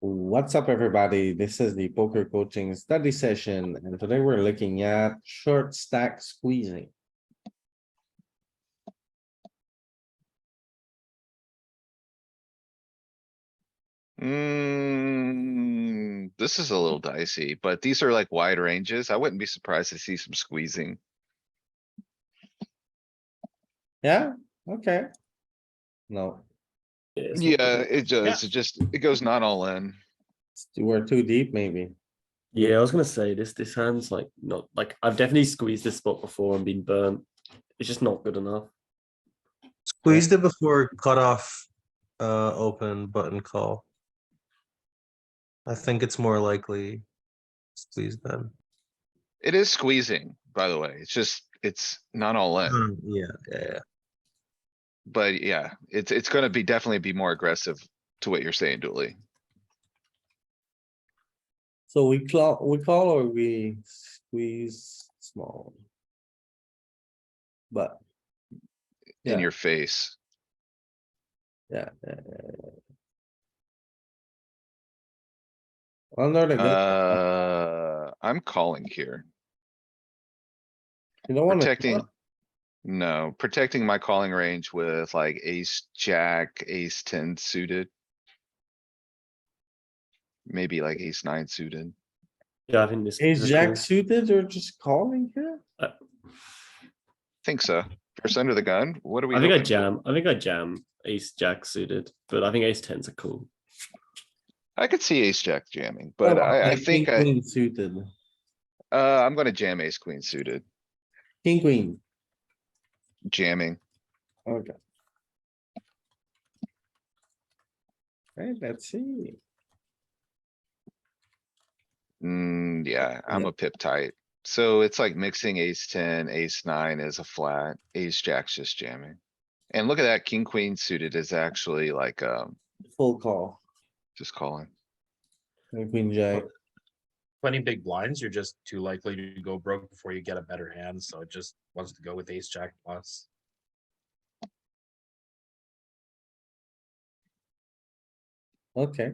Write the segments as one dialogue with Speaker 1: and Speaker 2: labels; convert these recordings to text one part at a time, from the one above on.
Speaker 1: What's up, everybody? This is the poker coaching study session, and today we're looking at short stack squeezing.
Speaker 2: Mm, this is a little dicey, but these are like wide ranges. I wouldn't be surprised to see some squeezing.
Speaker 1: Yeah, okay. No,
Speaker 2: Yeah, it does. It just, it goes not all in.
Speaker 1: you were too deep, maybe.
Speaker 3: Yeah, I was gonna say this. This hand's like not like I've definitely squeezed this spot before and been burnt. It's just not good enough.
Speaker 4: Squeezed it before cutoff, uh, open button call. I think it's more likely squeeze them.
Speaker 2: It is squeezing, by the way. It's just, it's not all in,
Speaker 4: Mm, Yeah, yeah, yeah.
Speaker 2: but yeah, it's, it's gonna be definitely be more aggressive to what you're saying, Dooley.
Speaker 1: So we call, we call or we squeeze small. But, Yeah.
Speaker 2: In your face.
Speaker 1: yeah. yeah, yeah, yeah. Under the gun,
Speaker 2: Uh, I'm calling here,
Speaker 1: you don't wanna.
Speaker 2: protecting. No, protecting my calling range with like ace, jack, ace ten suited. Maybe like ace nine suited.
Speaker 3: Yeah, I think this
Speaker 1: Is
Speaker 3: this
Speaker 1: jack
Speaker 3: call-
Speaker 1: suited or just calling here?
Speaker 2: Think so. First under the gun, what are we?
Speaker 3: I think I
Speaker 2: hoping?
Speaker 3: jam. I think I jam ace jack suited, but I think ace tens are cool.
Speaker 2: I could see ace jack jamming, but
Speaker 1: Oh,
Speaker 2: I, I
Speaker 1: like
Speaker 2: think
Speaker 1: king,
Speaker 2: I,
Speaker 1: queen Suited,
Speaker 2: uh, I'm gonna jam ace queen suited,
Speaker 1: king, queen,
Speaker 2: jamming.
Speaker 1: okay. Right, let's see.
Speaker 2: Mm, yeah, I'm
Speaker 1: Yeah.
Speaker 2: a pip tight. So it's like mixing ace ten, ace nine is a flat, ace jack's just jamming. And look at that, king queen suited is actually like, um,
Speaker 1: Full call,
Speaker 2: just calling.
Speaker 1: and queen jack,
Speaker 5: plenty big blinds, you're just too likely to go broke before you get a better hand, so it just wants to go with ace jack plus.
Speaker 1: okay.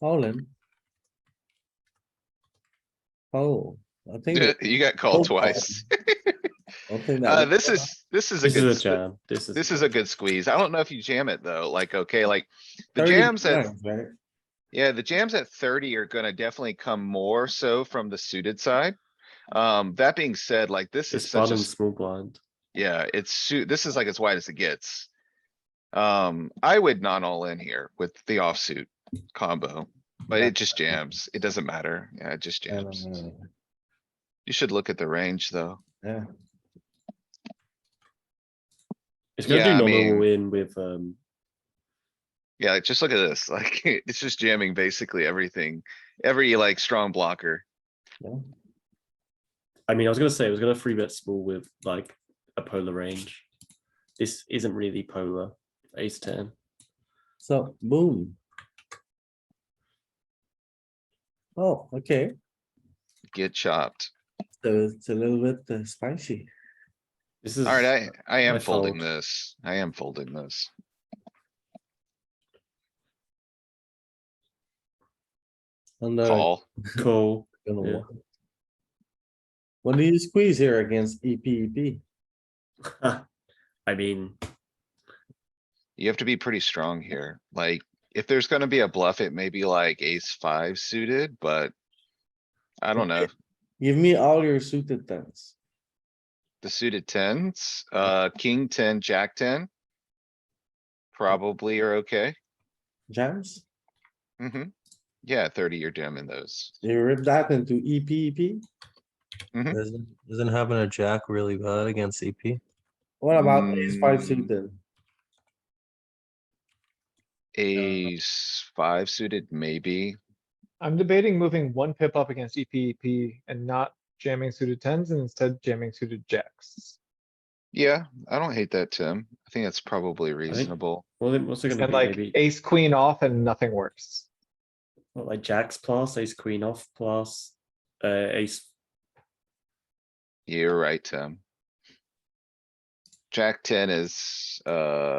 Speaker 1: All in. Oh, I think, that-
Speaker 2: You got
Speaker 1: Oh,
Speaker 2: called twice.
Speaker 1: I think
Speaker 2: Uh,
Speaker 1: that,
Speaker 2: this is, this is a
Speaker 3: This
Speaker 2: good,
Speaker 3: is a
Speaker 2: s-
Speaker 3: jam. This is
Speaker 2: this is a good squeeze. I don't know if you jam it though, like, okay, like, the
Speaker 1: 30
Speaker 2: jams at
Speaker 1: blinds, right?
Speaker 2: Yeah, the jams at thirty are gonna definitely come more so from the suited side. Um, that being said, like this is
Speaker 3: this
Speaker 2: such a,
Speaker 3: bottom
Speaker 2: s-
Speaker 3: small blind.
Speaker 2: yeah, it's suit, this is like as wide as it gets. Um, I would not all in here with the offsuit combo, but
Speaker 1: Yeah.
Speaker 2: it just jams. It doesn't matter. Yeah, it just
Speaker 1: I
Speaker 2: jams.
Speaker 1: don't know.
Speaker 2: You should look at the range, though.
Speaker 1: Yeah,
Speaker 3: It's gonna
Speaker 2: Yeah, I
Speaker 3: do nominal
Speaker 2: mean-
Speaker 3: win with um.
Speaker 2: Yeah, like, just look at this. Like, it's just jamming basically everything, every like strong blocker.
Speaker 1: yeah.
Speaker 3: I mean, I was gonna say I was gonna free bet small with like a polar range. This isn't really polar. Ace ten.
Speaker 1: So, boom. Oh, okay,
Speaker 2: Get chopped.
Speaker 1: so it's a little bit uh, spicy.
Speaker 3: This is
Speaker 2: Alright, I, I am
Speaker 3: I
Speaker 2: folding
Speaker 3: fold.
Speaker 2: this. I am folding this.
Speaker 1: on the-
Speaker 2: Call.
Speaker 3: cool.
Speaker 1: gonna
Speaker 3: Yeah.
Speaker 1: wa- What do you squeeze here against E EPEP?
Speaker 3: I mean,
Speaker 2: You have to be pretty strong here. Like, if there's gonna be a bluff, it may be like ace five suited, but. I don't know.
Speaker 1: Give me all your suited tens.
Speaker 2: The suited tens,
Speaker 3: Mm-hmm.
Speaker 2: uh, king ten, jack ten. Probably are okay.
Speaker 1: Jams,
Speaker 2: hmm Yeah, thirty, you're jamming those.
Speaker 1: you rip that into E EPEP?
Speaker 2: Hmm?
Speaker 4: Isn't, isn't having a jack really bad against E CP?
Speaker 1: What about ace five
Speaker 2: Mm.
Speaker 1: suited?
Speaker 3: Uh,
Speaker 2: Ace five suited, maybe.
Speaker 6: I'm debating moving one pip up against E EPEP and not jamming suited tens and instead jamming suited jacks.
Speaker 2: Yeah, I don't hate that, Tim. I think that's probably reasonable.
Speaker 3: well, then what's it gonna
Speaker 6: And
Speaker 3: be?
Speaker 6: like
Speaker 3: Maybe
Speaker 6: ace queen off and nothing works.
Speaker 3: what, like jacks plus ace queen off plus uh, ace.
Speaker 2: You're right, Tim. Jack ten is, uh.